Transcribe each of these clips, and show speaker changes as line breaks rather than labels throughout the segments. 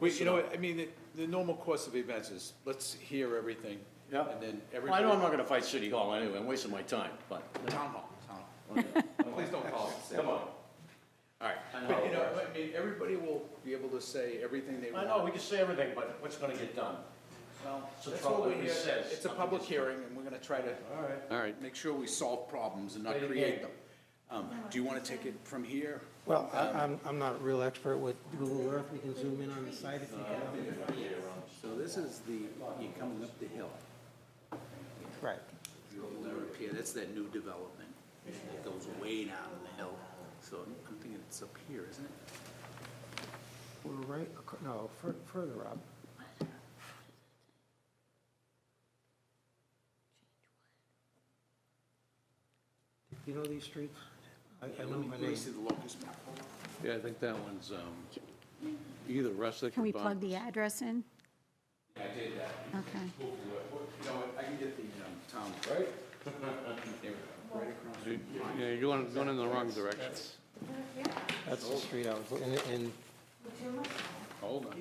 Wait, you know what, I mean, the, the normal course of events is, let's hear everything.
Yeah.
And then
Well, I know I'm
everybody.
not gonna fight City Hall anyway, I'm wasting my time, but,
Town hall, town hall. Please don't call it.
come on. All right.
But, you know, I mean, everybody will be able to say everything they
I
want.
know, we can say everything, but what's gonna get done?
Well,
So
That's
trouble
what we're
if he
here,
says
it's a
something
public
is-
hearing, and we're gonna try to.
All right.
All right. Make sure we solve problems and not
Play the
create them.
game.
Um, do you wanna take it from here?
Well, I- I'm, I'm not a real expert with Google Earth, we can zoom in on the site if you want.
So this is the, you're coming up the hill,
Right.
over up here, that's that new development. It goes way down in the hill, so I'm thinking it's up here, isn't it?
We're right, ac- no, fur- further up. You know these streets? I I know my
Let me
name.
see the locust map.
Yeah, I think that one's um, either Rustic
Can
or
we
Bon.
plug the address in?
I did that.
Okay.
You know, what, I can get the, um, town. Right? There we go, right across.
Yeah, you're going going in the wrong direction.
That's the street I was, looking- and, and
Hold on.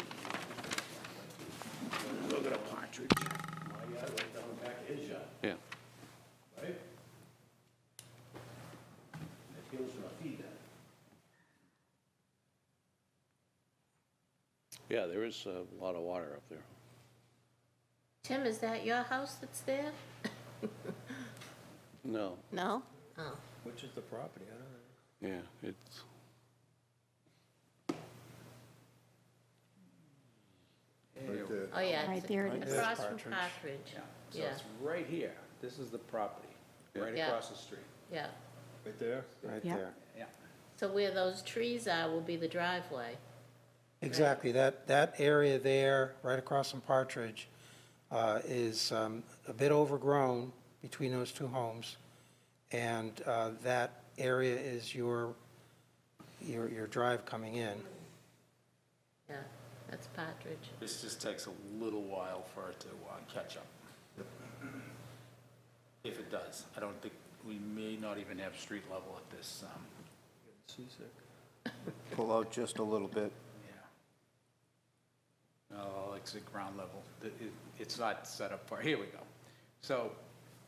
Look at a partridge.
My yard right down the back of his yard,
Yeah,
right? And it goes to feed that.
yeah, there is a lot of water up there.
Tim, is that your house that's there?
No,
No? Oh.
Which is the property, I don't know.
yeah, it's,
Oh, yeah.
Right
it's
there it is.
Across from Partridge.
So
Yeah,
it's right here, this is the property, right
Yeah.
across the street.
yeah.
Right there? Right
Yeah.
there.
Yeah.
So where those trees are will be the driveway.
Exactly, that, that area there, right across from Partridge, uh, is um, a bit overgrown between those two homes, and uh, that area is your, your, your drive coming in.
Yeah, that's Partridge.
This just takes a little while for it to uh, catch up. If it does, I don't think, we may not even have street level at this, um,
pull out just a little bit.
yeah. Oh, it's at ground level, The- it- it's not set up for, here we go.
So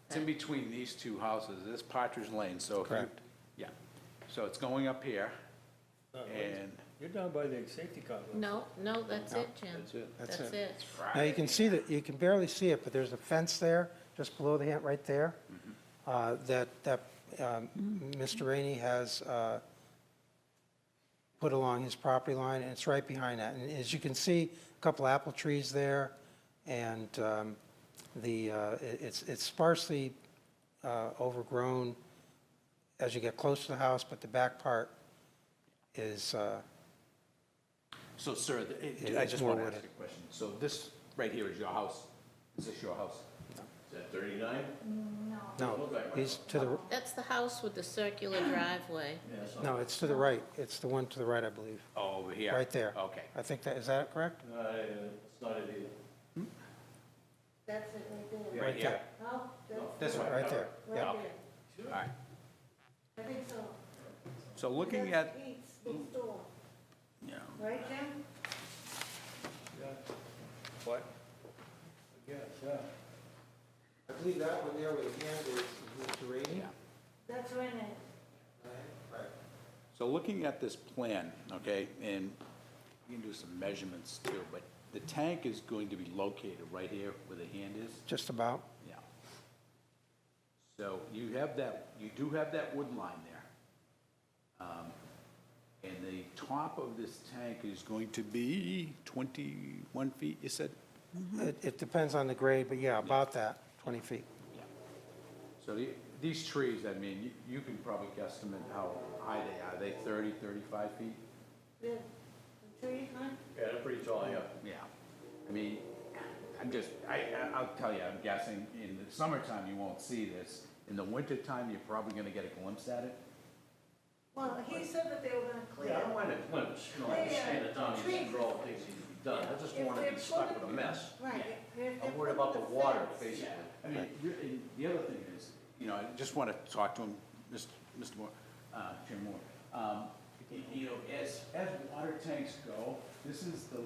it's in between these two houses, this Partridge Lane, so. if you-
Correct.
Yeah, so it's going up here, and
You're down by the safety complex.
No, no, that's it, Jim. That's
it.
That's
That's
it.
it.
Now, you can see that, you can barely see it, but there's a fence there, just below the hand, right there, uh, that, that um, Mr. Rainey has uh, put along his property line, and it's right behind that. And as you can see, a couple apple trees there, and um, the, uh, it- it's it's sparsely uh, overgrown as you get close to the house, but the back part is, uh,
so sir, th- it-
Yeah,
I
it's
just
more
want to
wood.
ask you a question. So this right here is your house? Is this your house?
Is that thirty-nine?
no, he's to the,
That's the house with the circular driveway.
no, it's to the right, it's the one to the right, I believe.
Oh, over here?
Right there.
Okay.
I think that, is that correct?
No, Uh, it's not it either.
That's it right
Right here?
Oh,
This way?
Right there, yeah.
Okay. All right.
I think so.
So looking at,
Yeah.
right, Jim?
what?
Yes, yeah.
I believe that one there with the hand is Mr. Rainey.
That's right.
So looking at this plan, okay, and you can do some measurements too, but the tank is going to be located right here where the hand is?
Just about.
Yeah. So you have that, you do have that wood line there. Um, And the top of this tank is going to be 21 feet, you said?
It, it depends on the grade, but yeah, about that, 20 feet.
Yeah. So the- these trees, I mean, you- you can probably guesstimate how high they are. Are they 30, 35 feet?
Yeah, they're pretty tall, yeah.
Yeah. I mean, I'm just, I, I- I'll tell you, I'm guessing in the summertime, you won't see this. In the wintertime, you're probably going to get a glimpse at it.
Well, he said that they were gonna
Oh,
clear.
Yeah, I don't mind a glimpse, you know, I understand that Don needs to control what things need to be done, I just don't wanna be stuck with a mess.
Right. if they're
I'm worried about the
putting
water,
fence-
basically.
I mean, you're- and the other thing is, you know, I just want to talk to him, Mr. Mr. Moore, uh, Jim Moore. Um, y- You know, as, as water tanks go, this is the